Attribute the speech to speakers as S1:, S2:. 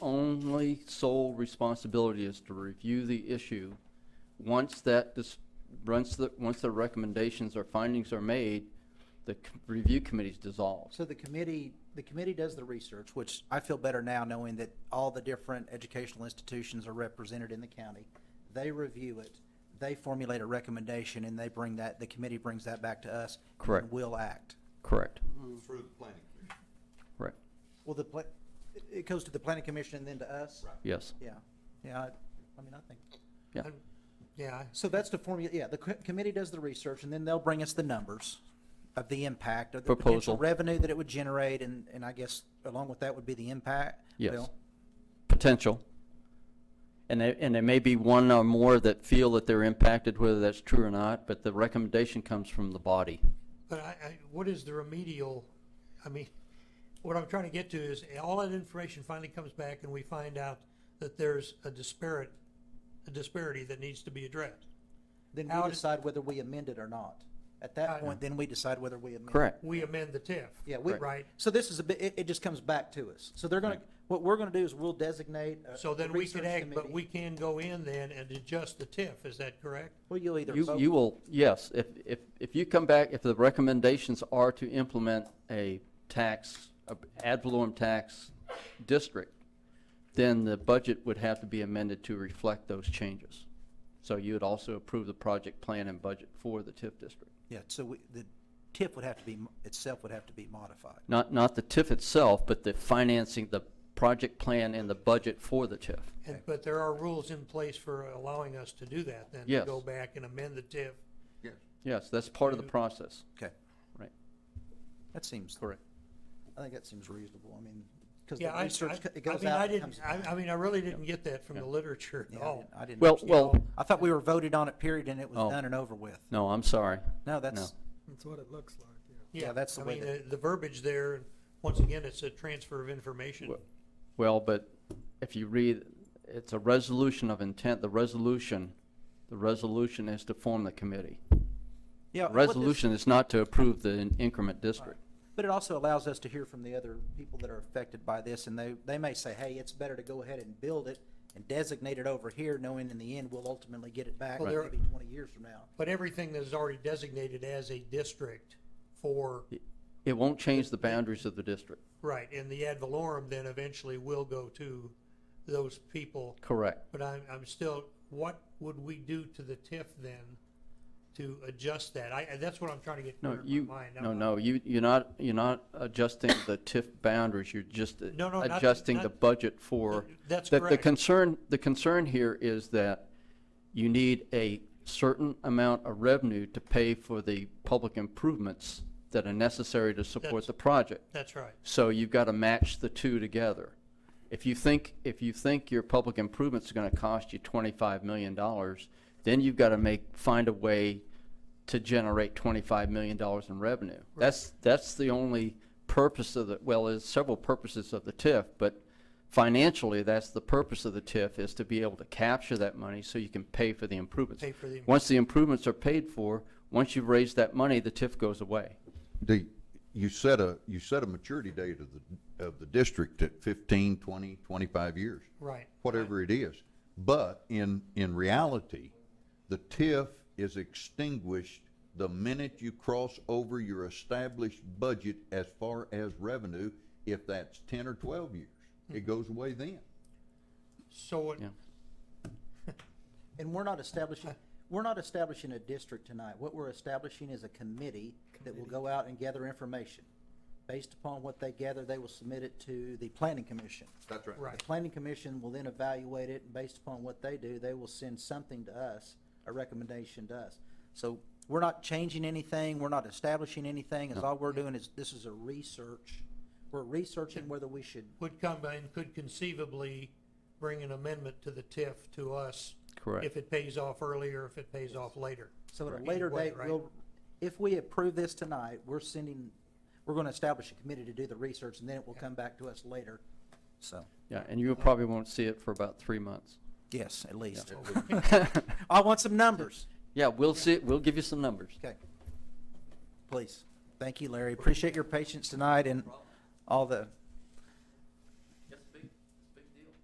S1: only sole responsibility is to review the issue. Once that, dis- once the, once the recommendations or findings are made, the c- review committee's dissolved.
S2: So the committee, the committee does the research, which I feel better now knowing that all the different educational institutions are represented in the county. They review it, they formulate a recommendation, and they bring that, the committee brings that back to us.
S1: Correct.
S2: And we'll act.
S1: Correct,
S3: Through the planning commission.
S1: right,
S2: Well, the, pla- it- it goes to the planning commission and then to us?
S3: Right.
S1: yes,
S2: Yeah, yeah, I- I mean, I think,
S1: yeah,
S4: And- Yeah,
S2: so that's the formula, yeah, the co- committee does the research, and then they'll bring us the numbers of the impact, of the
S1: Proposal.
S2: potential revenue that it would generate, and, and I guess along with that would be the impact.
S1: Yes.
S2: Well,
S1: potential. And there, and there may be one or more that feel that they're impacted, whether that's true or not, but the recommendation comes from the body.
S4: but I, I, what is the remedial, I mean, what I'm trying to get to is, all that information finally comes back and we find out that there's a disparate, a disparity that needs to be addressed.
S2: Then
S4: How
S2: we
S4: did-
S2: decide whether we amend it or not. At
S4: I-
S2: that point, then we decide whether we amend. it.
S1: Correct,
S4: We amend the TIF.
S2: Yeah, we,
S4: Right.
S2: right. So this is a bit, it, it just comes back to us. So they're gonna, what we're gonna do is we'll designate a.
S4: So then we can
S2: research
S4: act, but
S2: committee.
S4: we can go in then and adjust the TIF, is that correct?
S2: Well, you'll either
S1: You,
S2: vote-
S1: you will, yes, if, if, if you come back, if the recommendations are to implement a tax, a ad valorem tax district, then the budget would have to be amended to reflect those changes. So you would also approve the project plan and budget for the TIF district.
S2: Yeah, so we, the TIF would have to be, mo- itself would have to be modified.
S1: Not, not the TIF itself, but the financing, the project plan and the budget for the TIF.
S4: And, but there are rules in place for allowing us to do that then, to
S1: Yes.
S4: go back and amend the TIF.
S3: Yes.
S1: Yes, that's part of the process,
S2: Okay,
S1: right?
S2: that seems. Correct. I think that seems reasonable. I mean, because the
S4: Yeah, I, I,
S2: research, co- it
S4: I
S2: goes
S4: mean, I
S2: out, it
S4: didn't,
S2: comes.
S4: I, I mean, I really didn't get that from the
S1: Yeah.
S4: literature
S2: Yeah,
S4: at
S2: I
S4: all.
S2: didn't- I didn't.
S1: Well,
S2: understand.
S1: well,
S2: I thought we were voted on it period and it
S1: Oh.
S2: was done and over with.
S1: no, I'm sorry.
S2: No, that's,
S5: That's what it looks like, yeah.
S2: yeah, that's the
S4: I
S2: way
S4: mean,
S2: that-
S4: The verbiage there, once again, it's a transfer of information.
S1: Well- Well, but if you read, it's a resolution of intent, the resolution, the resolution is to form the committee.
S2: yeah. what this-
S1: Resolution is not to approve the in- increment district.
S2: But it also allows us to hear from the other people that are affected by this, and they, they may say, hey, it's better to go ahead and build it and designate it over here, knowing in the end, we'll ultimately get it back
S4: Well, there-
S2: maybe twenty years from now.
S4: But everything that is already designated as a district for,
S1: It won't change the boundaries of the district.
S4: right, and the ad valorem then eventually will go to those people.
S1: Correct.
S4: But I'm, I'm still, what would we do to the TIF then to adjust that? I, that's what I'm trying to get
S1: No,
S4: clear in
S1: you,
S4: my mind. I'm
S1: no,
S4: not-
S1: no, you, you're not, you're not adjusting the TIF boundaries, you're just
S4: No, no, not-
S1: adjusting the
S4: not-
S1: budget for.
S4: That's
S1: The- The
S4: correct.
S1: concern, the concern here is that you need a certain amount of revenue to pay for the public improvements that are necessary to support
S4: That's-
S1: the project.
S4: That's right.
S1: So you've got to match the two together. If you think, if you think your public improvements are going to cost you twenty-five million dollars, then you've got to make, find a way to generate twenty-five million dollars in revenue. That's, that's the only purpose of the, well, there's several purposes of the TIF, but financially, that's the purpose of the TIF, is to be able to capture that money so you can pay for the improvements.
S4: Pay for the-
S1: Once the improvements are paid for, once you've raised that money, the TIF goes away.
S3: The, you set a, you set a maturity date of the, of the district at 15, 20, 25 years.
S4: Right.
S3: Whatever it is. But in, in reality, the TIF is extinguished the minute you cross over your established budget as far as revenue, if that's 10 or 12 years.
S4: Hmm.
S3: It goes away then.
S4: So, it-
S1: Yeah.
S2: And we're not establishing, we're not establishing a district tonight. What we're establishing is a committee that will go out and gather information. Based upon what they gather, they will submit it to the planning commission.
S3: That's
S4: right.
S2: The planning commission will then evaluate it, and based upon what they do, they will send something to us, a recommendation to us. So we're not changing anything, we're not establishing anything, it's all we're doing is, this is a research. We're researching whether we should,
S4: would come and could conceivably bring an amendment to the TIF to us.
S1: Correct.
S4: If it pays off earlier, if it pays off later.
S2: so at a
S4: Right.
S2: later
S4: Either way,
S2: date,
S4: right.
S2: we'll, if we approve this tonight, we're sending, we're gonna establish a committee to do the research, and then it will come back to us later, so.
S1: Yeah, and you probably won't see it for about three months.
S2: Yes, at least. I want some numbers.
S1: Yeah, we'll see, we'll give you some numbers.
S2: Okay. Please. Thank you, Larry. Appreciate your patience tonight and all the